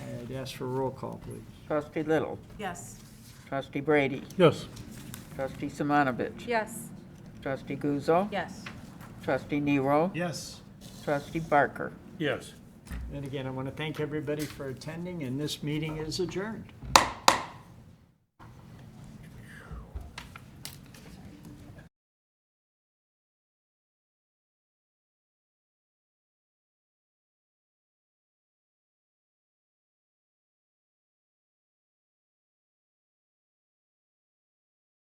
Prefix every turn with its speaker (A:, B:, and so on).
A: Yes, for roll call, please.
B: Trustee Little,
C: Yes.
B: Trustee Brady,
D: Yes.
B: Trustee Simonovich,
C: Yes.
B: Trustee Guzzo,
C: Yes.
B: Trustee Nero,
D: Yes.
B: Trustee Barker.
D: Yes.
A: And again, I want to thank everybody for attending, and this meeting is adjourned.